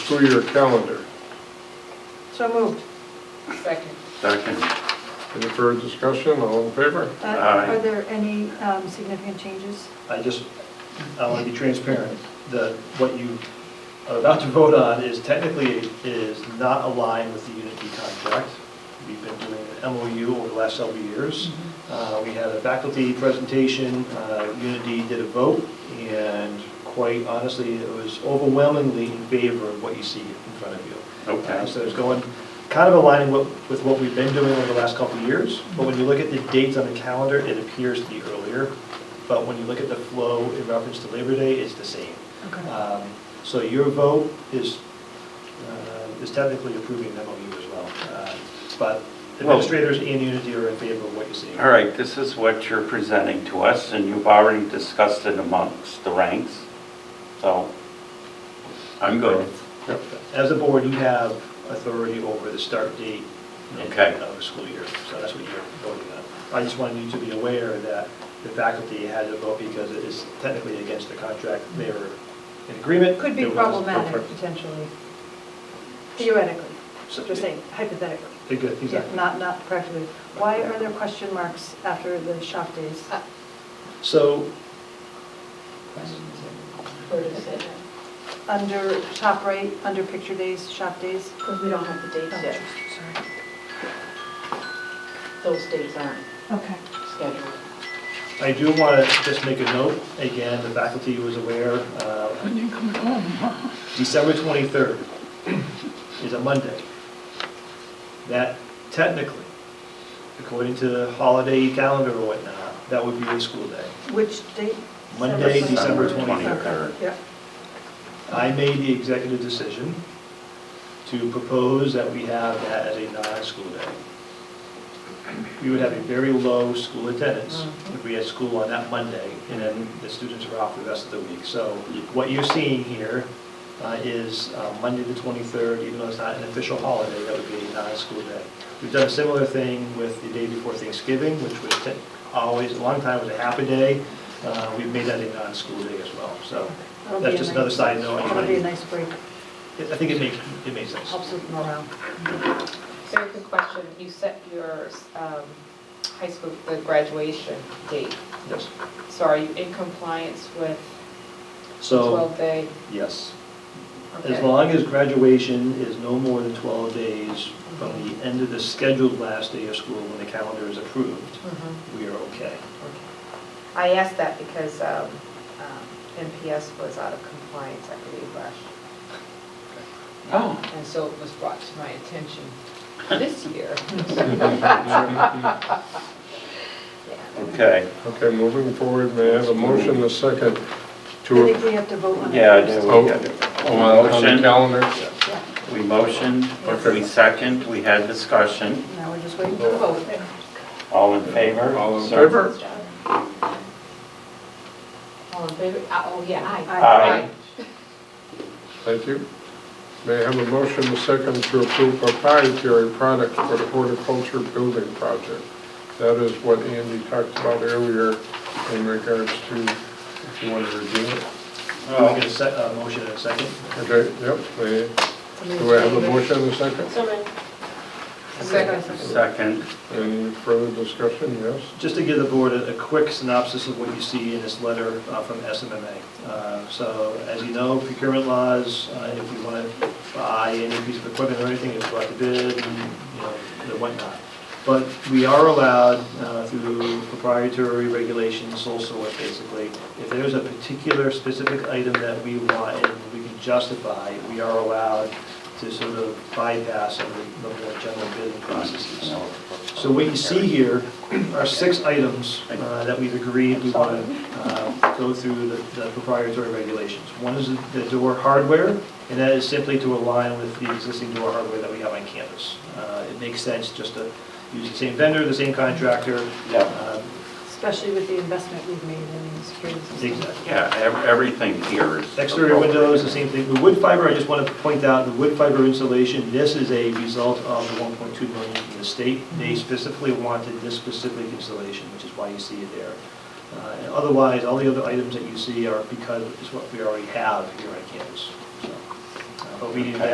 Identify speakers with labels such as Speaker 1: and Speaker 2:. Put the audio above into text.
Speaker 1: school-year calendar.
Speaker 2: So moved.
Speaker 3: Second.
Speaker 4: Second.
Speaker 1: Any further discussion, all in favor?
Speaker 2: Uh,
Speaker 4: Aye.
Speaker 2: Are there any um, significant changes?
Speaker 5: I just, I want to be transparent, that what you are about to vote on is technically is not aligned with the Unity contract. We've been doing an MOU over the last several years. Uh, We had a faculty presentation, uh, Unity did a vote, and quite honestly, it was overwhelmingly in favor of what you see in front of you.
Speaker 4: Okay.
Speaker 5: Uh, So it's going, kind of aligning what- with what we've been doing over the last couple of years, but when you look at the dates on the calendar, it appears to be earlier, but when you look at the flow in reference to Labor Day, it's the same.
Speaker 2: Okay.
Speaker 5: Um, So your vote is, uh, is technically approving the MOU as well, Uh, but
Speaker 4: Well-
Speaker 5: administrators and Unity are in favor of what you're seeing.
Speaker 4: All right, this is what you're presenting to us, and you've already discussed it amongst the ranks, so I'm good.
Speaker 5: As a board, you have authority over the start date and
Speaker 4: Okay.
Speaker 5: of the school year, so that's what you're voting on. I just wanted you to be aware that the faculty had to vote because it is technically against the contract, they were in agreement.
Speaker 2: It could be
Speaker 5: There was no
Speaker 2: problematic,
Speaker 5: per-
Speaker 2: potentially. Theoretically,
Speaker 5: So-
Speaker 2: just saying hypothetically.
Speaker 5: They're good,
Speaker 2: Yeah,
Speaker 5: exactly.
Speaker 2: Not, not practically. Why are there question marks after the shop days?
Speaker 5: Uh, So
Speaker 3: Where does it?
Speaker 2: Under top right, under picture days, shop days?
Speaker 3: Because we don't have the dates yet.
Speaker 2: Sorry.
Speaker 3: Those dates aren't
Speaker 2: Okay.
Speaker 3: scheduled.
Speaker 5: I do want to just make a note, again, the faculty was aware, uh, December 23rd is a Monday. That technically, according to the holiday calendar or whatnot, that would be a school day.
Speaker 2: Which date?
Speaker 5: Monday,
Speaker 2: December
Speaker 5: December 23rd.
Speaker 2: Yeah.
Speaker 5: I made the executive decision to propose that we have that as a non-school day. We would have a very low school attendance
Speaker 2: Mm-hmm.
Speaker 5: if we had school on that Monday, and then the students are off the rest of the week. So what you're seeing here uh, is uh, Monday the 23rd, even though it's not an official holiday, that would be a non-school day. We've done a similar thing with the day before Thanksgiving, which was te- always, a long time was a happy day. Uh, We've made that a non-school day as well, so
Speaker 2: That'll be
Speaker 5: that's
Speaker 2: a
Speaker 5: just
Speaker 2: nice-
Speaker 5: another side note.
Speaker 2: That'll be a nice break,
Speaker 5: I think it makes, it makes sense.
Speaker 2: helps with morale.
Speaker 6: Very good question. You set your um, high school, the graduation date.
Speaker 5: Yes.
Speaker 6: So are you in compliance with
Speaker 5: So,
Speaker 6: 12-day?
Speaker 5: yes. As
Speaker 6: Okay.
Speaker 5: long as graduation is no more than 12 days from the end of the scheduled last day of school when the calendar is approved,
Speaker 6: Mhm.
Speaker 5: we are okay.
Speaker 6: I asked that because um, um, MPS was out of compliance, I believe, last year.
Speaker 4: Oh,
Speaker 6: And so it was brought to my attention this year. Yeah.
Speaker 4: okay.
Speaker 1: Okay, moving forward, may I have a motion, a second
Speaker 2: I
Speaker 1: to,
Speaker 2: think we have to vote on it.
Speaker 4: Yeah, I
Speaker 2: first.
Speaker 4: do.
Speaker 1: oh, on the calendar?
Speaker 2: Yeah,
Speaker 4: We motioned, we second, we had discussion.
Speaker 2: now we're just waiting for the vote.
Speaker 4: All in favor?
Speaker 1: All in
Speaker 4: Sir?
Speaker 1: favor?
Speaker 3: All in favor? Uh, Oh, yeah, aye.
Speaker 4: Aye.
Speaker 1: Thank you. May I have a motion, a second to approve proprietary products for the horticulture building project? That is what Andy talked about earlier in regards to, if you want to review it.
Speaker 5: Can we get a sec- a motion in a second?
Speaker 1: Okay, yep, may, do I have a motion, a second?
Speaker 6: Second.
Speaker 4: Second,
Speaker 1: Any further discussion, yes?
Speaker 5: Just to give the board a a quick synopsis of what you see in this letter uh, from SMMA. Uh, So as you know, procurement laws, uh, if you want to buy any piece of equipment or anything, it's brought to bid, and, you know, and whatnot. But we are allowed uh, through proprietary regulations, sole source basically, if there's a particular specific item that we want and we can justify, we are allowed to sort of bypass some of the the more general bidding processes. So what you see here are six items uh, that we've agreed we want to go through the the proprietary regulations. One is the door hardware, and that is simply to align with the existing door hardware that we have on campus. Uh, It makes sense just to use the same vendor, the same contractor.
Speaker 4: Yeah.
Speaker 5: uh,
Speaker 2: Especially with the investment we've made in the security system.
Speaker 5: Exactly.
Speaker 4: yeah, ev- everything here is.
Speaker 5: Exterior windows, the same thing. The wood fiber, I just want to point out, the wood fiber insulation, this is a result of the 1.2 million from the state. They specifically wanted this specific insulation, which is why you see it there. Uh, and Otherwise, all the other items that you see are because it's what we already have here on campus. So, um,
Speaker 7: but we need to
Speaker 5: Okay.